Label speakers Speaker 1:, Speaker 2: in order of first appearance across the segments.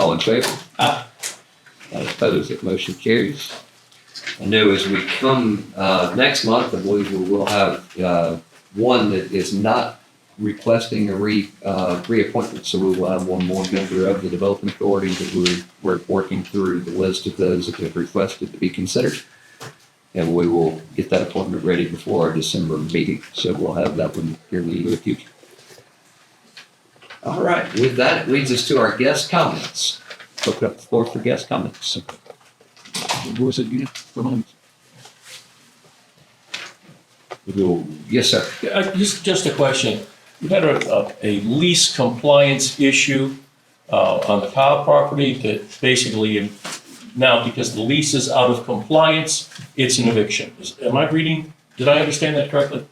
Speaker 1: All in favor?
Speaker 2: Aye.
Speaker 1: None opposed, that motion carries. I know as we come, uh, next month, I believe we will have, uh, one that is not requesting a re, uh, reappointment, so we will have one more member of the Development Authority that we're, we're working through the list of those that have requested to be considered. And we will get that appointment ready before our December meeting, so we'll have that one here in the near future. All right, with that, it leads us to our guest comments. Open up the floor for guest comments. What was it, you, Yes, sir.
Speaker 2: Yeah, uh, Just, just a question. You had a, a- a lease compliance issue uh, on the Powell property that basically, um, now because the lease is out of compliance, it's an eviction. Is- Am I reading, did I understand that correctly?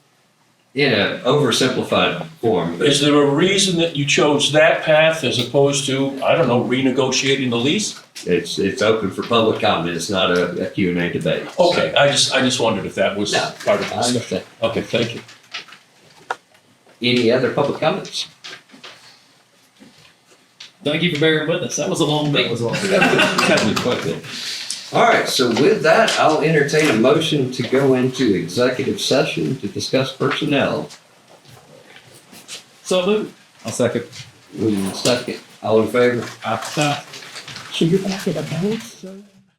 Speaker 1: In an oversimplified form,
Speaker 2: Is there a reason that you chose that path as opposed to, I don't know, renegotiating the lease?
Speaker 1: it's, it's open for public comment. It's not a, a Q and A debate.
Speaker 2: Okay, I just, I just wondered if that was
Speaker 1: No.
Speaker 2: part of the
Speaker 1: I
Speaker 2: discussion.
Speaker 1: understand.
Speaker 2: Okay, thank you.
Speaker 1: Any other public comments?
Speaker 3: Thank you for bearing with us. That was a long day. was long.
Speaker 1: All right, so with that, I'll entertain a motion to go into executive session to discuss personnel.
Speaker 3: So Lou,
Speaker 4: I'll second.
Speaker 1: Moving second, all in favor?
Speaker 3: I,
Speaker 5: So you're back at a bounce, sir?